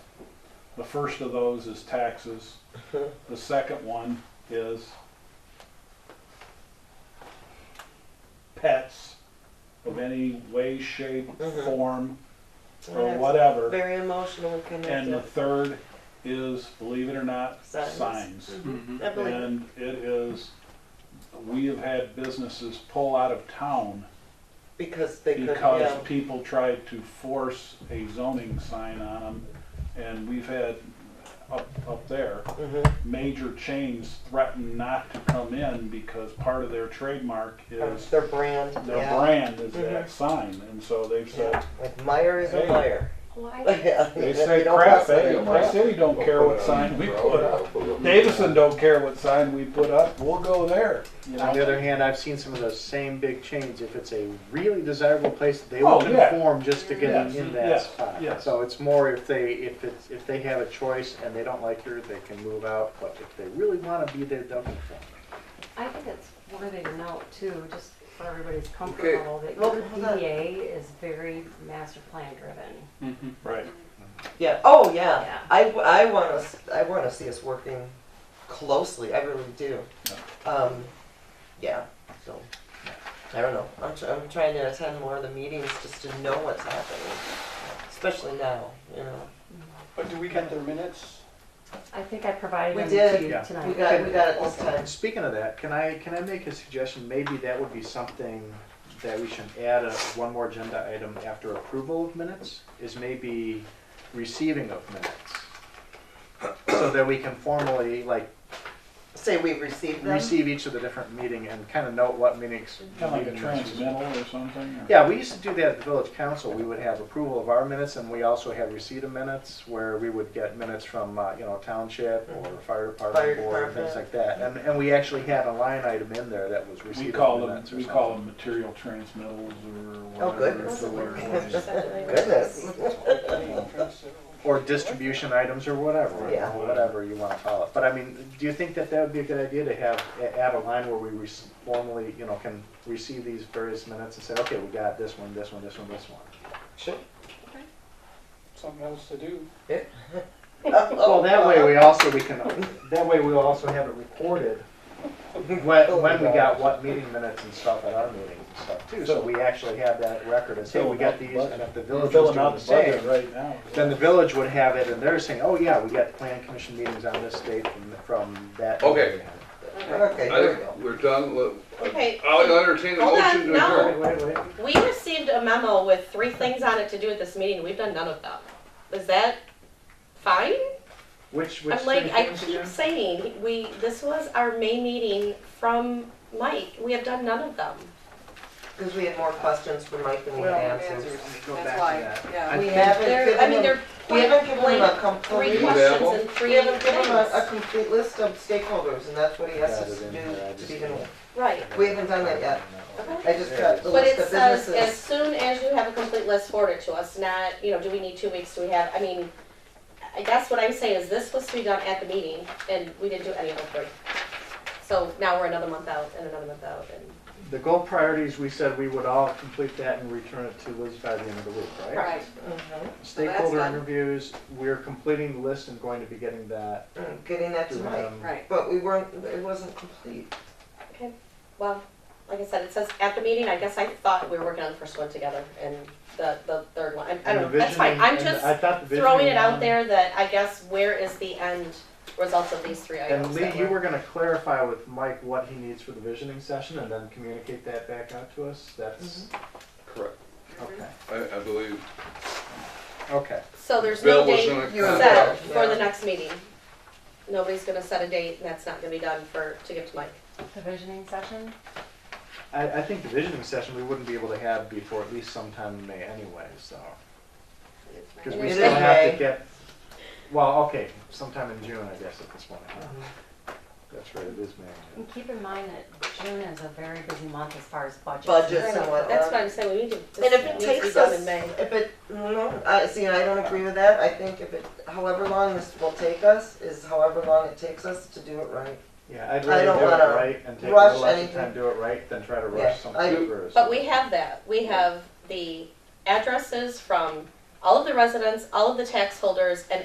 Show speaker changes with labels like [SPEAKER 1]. [SPEAKER 1] The first of those is taxes. The second one is pets of any way, shape,
[SPEAKER 2] Mhm.
[SPEAKER 1] form, or
[SPEAKER 2] That's
[SPEAKER 1] whatever.
[SPEAKER 2] Very emotional
[SPEAKER 1] And
[SPEAKER 2] and
[SPEAKER 1] the
[SPEAKER 2] connected.
[SPEAKER 1] third is, believe it or not,
[SPEAKER 2] Signs.
[SPEAKER 1] signs.
[SPEAKER 2] I believe it.
[SPEAKER 1] And it is, we have had businesses pull out of town
[SPEAKER 2] because they could,
[SPEAKER 1] because
[SPEAKER 2] yeah.
[SPEAKER 1] people tried to force a zoning sign on them. And we've had up, up there,
[SPEAKER 2] Mhm.
[SPEAKER 1] major chains threaten not to come in because part of their trademark
[SPEAKER 2] That's
[SPEAKER 1] is,
[SPEAKER 2] Their brand,
[SPEAKER 1] their
[SPEAKER 2] yeah.
[SPEAKER 1] brand is
[SPEAKER 2] Mhm.
[SPEAKER 1] that sign. And so they've said,
[SPEAKER 2] Yeah. Like Meyer is a
[SPEAKER 1] Hey.
[SPEAKER 2] liar.
[SPEAKER 3] Why?
[SPEAKER 2] Yeah,
[SPEAKER 1] they
[SPEAKER 2] you
[SPEAKER 1] say
[SPEAKER 2] don't
[SPEAKER 1] crap,
[SPEAKER 2] want that.
[SPEAKER 1] eh, my city don't care what sign we put up. Davison don't care what sign we put up, we'll go there. You
[SPEAKER 4] On the
[SPEAKER 1] know?
[SPEAKER 4] other hand, I've seen some of those same big chains, if it's a really desirable place, they
[SPEAKER 1] Oh,
[SPEAKER 4] will
[SPEAKER 1] yeah.
[SPEAKER 4] conform just to get
[SPEAKER 1] Yes,
[SPEAKER 4] in
[SPEAKER 1] yes,
[SPEAKER 4] that spot.
[SPEAKER 1] yes.
[SPEAKER 4] So it's more if they, if it's, if they have a choice and they don't like her, they can move out, but if they really wanna be there, they'll conform.
[SPEAKER 3] I think it's worthy to note too, just for everybody's comfort
[SPEAKER 5] Okay.
[SPEAKER 3] level, that
[SPEAKER 2] Well,
[SPEAKER 3] your
[SPEAKER 2] hold on.
[SPEAKER 3] DDA is very master plan driven.
[SPEAKER 1] Right.
[SPEAKER 2] Yeah. Oh, yeah.
[SPEAKER 3] Yeah.
[SPEAKER 2] I, I want us. I want to see us working closely. I really do. Um, yeah. So I don't know. I'm, tr- I'm trying to attend more of the meetings just to know what's happening, especially now. You know.
[SPEAKER 5] But do we get their minutes?
[SPEAKER 3] I think I provided
[SPEAKER 2] We
[SPEAKER 3] them
[SPEAKER 2] did.
[SPEAKER 3] to you
[SPEAKER 4] Yeah.
[SPEAKER 3] tonight.
[SPEAKER 2] We got we got it this time.
[SPEAKER 4] Speaking of that, can I, can I make a suggestion? Maybe that would be something that we should add a, one more agenda item after approval of minutes, is maybe receiving of minutes. So that we can formally, like,
[SPEAKER 2] Say we've received them.
[SPEAKER 4] receive each of the different meeting and kind of note what meetings.
[SPEAKER 1] Kind of like a
[SPEAKER 4] meeting minutes.
[SPEAKER 1] transmittal or something. or-
[SPEAKER 4] Yeah, we used to do that at the village council. We would have approval of our minutes and we also had receipt of minutes where we would get minutes from, uh, you know, township or fire
[SPEAKER 2] Fire
[SPEAKER 4] department board,
[SPEAKER 2] department.
[SPEAKER 4] things like that. And, and we actually had a line item in there that was
[SPEAKER 1] We
[SPEAKER 4] receipt
[SPEAKER 1] call
[SPEAKER 4] of
[SPEAKER 1] them,
[SPEAKER 4] minutes or
[SPEAKER 1] we
[SPEAKER 4] something.
[SPEAKER 1] call them material transmittals or whatever.
[SPEAKER 2] Oh, goodness.
[SPEAKER 1] it's a word for it.
[SPEAKER 2] Goodness.
[SPEAKER 4] Or distribution items or whatever,
[SPEAKER 2] Yeah.
[SPEAKER 4] or whatever you wanna call it. But I mean, do you think that that would be a good idea to have, a- add a line where we rec- formally, you know, can receive these various minutes and say, okay, we got this one, this one, this one, this one?
[SPEAKER 5] Sure. Something else to do.
[SPEAKER 2] Oh,
[SPEAKER 4] Well, that
[SPEAKER 2] uh,
[SPEAKER 4] way we also, we can, that way we'll also have it recorded when, when we got what meeting minutes and stuff at our meetings and stuff too. So we actually have that record and say, we got these, and if the
[SPEAKER 1] We're
[SPEAKER 4] village was
[SPEAKER 1] filling
[SPEAKER 4] doing
[SPEAKER 1] out
[SPEAKER 4] the
[SPEAKER 1] the budget
[SPEAKER 4] same,
[SPEAKER 1] right now.
[SPEAKER 4] then the village would have it and they're saying, oh yeah, we got plan commission meetings on this date from, from that.
[SPEAKER 6] Okay.
[SPEAKER 4] meeting."
[SPEAKER 2] Okay.
[SPEAKER 6] I
[SPEAKER 2] There we go.
[SPEAKER 6] think we're done. Look,
[SPEAKER 7] Okay,
[SPEAKER 6] I'll entertain a
[SPEAKER 7] Hold on,
[SPEAKER 6] motion to
[SPEAKER 7] no.
[SPEAKER 6] adjourn.
[SPEAKER 4] Wait, wait, wait.
[SPEAKER 7] we received a memo with three things on it to do at this meeting, we've done none of them. Is that fine?
[SPEAKER 4] Which, which.
[SPEAKER 7] I'm like,
[SPEAKER 4] three
[SPEAKER 7] I
[SPEAKER 4] things
[SPEAKER 7] keep
[SPEAKER 4] again?
[SPEAKER 7] saying, we, this was our May meeting from Mike, we have done none of them.
[SPEAKER 2] Because we had more questions for Mike than we had answers.
[SPEAKER 4] Go back to that. I
[SPEAKER 2] We
[SPEAKER 4] think-
[SPEAKER 2] haven't
[SPEAKER 7] There, I mean,
[SPEAKER 2] given
[SPEAKER 7] they're
[SPEAKER 2] them, we haven't given them a complete.
[SPEAKER 7] three
[SPEAKER 6] Leave
[SPEAKER 7] questions
[SPEAKER 6] Apple.
[SPEAKER 7] and
[SPEAKER 2] We
[SPEAKER 7] three
[SPEAKER 2] haven't given him a, a
[SPEAKER 7] things.
[SPEAKER 2] complete list of stakeholders, and that's what he has
[SPEAKER 4] Got
[SPEAKER 2] us
[SPEAKER 4] it
[SPEAKER 2] to
[SPEAKER 4] in
[SPEAKER 2] do
[SPEAKER 4] there, I
[SPEAKER 2] to
[SPEAKER 4] just-
[SPEAKER 2] begin with.
[SPEAKER 7] Right,
[SPEAKER 2] We haven't done that yet. I just got the
[SPEAKER 7] but
[SPEAKER 2] list
[SPEAKER 7] it
[SPEAKER 2] of
[SPEAKER 7] says, as
[SPEAKER 2] businesses.
[SPEAKER 7] soon as you have a complete list forwarded to us, not, you know, do we need two weeks, do we have, I mean, I guess what I'm saying is this was to be done at the meeting, and we didn't do any of the three. So now we're another month out, and another month out, and.
[SPEAKER 4] The goal priorities, we said we would all complete that and return it to Liz by the end of the week, right?
[SPEAKER 2] Mhm.
[SPEAKER 4] Stakeholder interviews, we're completing the list and going to be getting that
[SPEAKER 2] Mm, Getting that to
[SPEAKER 4] to
[SPEAKER 2] Mike,
[SPEAKER 4] him.
[SPEAKER 2] but we weren't, it wasn't complete.
[SPEAKER 7] Okay, well, like I said, it says at the meeting, I guess I thought we were working on the first one together and the, the third one, I- I don't know,
[SPEAKER 4] And the
[SPEAKER 7] that's fine,
[SPEAKER 4] visioning-
[SPEAKER 7] I'm
[SPEAKER 4] and
[SPEAKER 7] just
[SPEAKER 4] I thought the
[SPEAKER 7] throwing it
[SPEAKER 4] visioning
[SPEAKER 7] out
[SPEAKER 4] one-
[SPEAKER 7] there that I guess where is the end results of these three
[SPEAKER 4] And
[SPEAKER 7] items
[SPEAKER 4] Lee,
[SPEAKER 7] that
[SPEAKER 4] you
[SPEAKER 7] were.
[SPEAKER 4] were gonna clarify with Mike what he needs for the visioning session and then communicate that back out to us, that's,
[SPEAKER 6] Correct.
[SPEAKER 7] Mm-hmm.
[SPEAKER 4] okay,
[SPEAKER 6] I, I believe
[SPEAKER 4] okay.
[SPEAKER 7] So there's no
[SPEAKER 6] Bill
[SPEAKER 7] date
[SPEAKER 6] was in a
[SPEAKER 2] you were
[SPEAKER 6] contract.
[SPEAKER 7] set for the
[SPEAKER 2] Yeah.
[SPEAKER 7] next meeting. Nobody's gonna set a date and that's not gonna be done for, to give to Mike.
[SPEAKER 3] The visioning session?
[SPEAKER 4] I, I think the visioning session, we wouldn't be able to have before at least sometime in May anyway, so. Cause we
[SPEAKER 2] It
[SPEAKER 4] still
[SPEAKER 2] is
[SPEAKER 4] have
[SPEAKER 2] May.
[SPEAKER 4] to get, well, okay, sometime in June, I guess, at this point, huh?
[SPEAKER 7] Mm-hmm.
[SPEAKER 4] That's right, it is May.
[SPEAKER 3] And keep in mind that June is a very busy month as far as budgets.
[SPEAKER 2] Budgets.
[SPEAKER 7] I
[SPEAKER 2] Just
[SPEAKER 7] know,
[SPEAKER 2] somewhat,
[SPEAKER 7] That's
[SPEAKER 2] uh,
[SPEAKER 7] what I'm saying, we need to, this
[SPEAKER 2] And if
[SPEAKER 7] needs
[SPEAKER 2] it
[SPEAKER 7] to be
[SPEAKER 2] takes
[SPEAKER 7] done
[SPEAKER 2] us,
[SPEAKER 7] in May.
[SPEAKER 2] if it, no, I, see, I don't agree with that, I think if it, however long this will take us, is however long it takes us to do it right.
[SPEAKER 4] Yeah, I'd
[SPEAKER 2] I
[SPEAKER 4] rather
[SPEAKER 2] don't
[SPEAKER 4] do it
[SPEAKER 2] wanna
[SPEAKER 4] right and take a
[SPEAKER 2] rush
[SPEAKER 4] little extra
[SPEAKER 2] anything.
[SPEAKER 4] time, do it right, than try to
[SPEAKER 2] Yeah,
[SPEAKER 4] rush
[SPEAKER 2] I-
[SPEAKER 4] something through. so-
[SPEAKER 7] But we have that. We have the addresses from all of the residents, all of the tax holders, and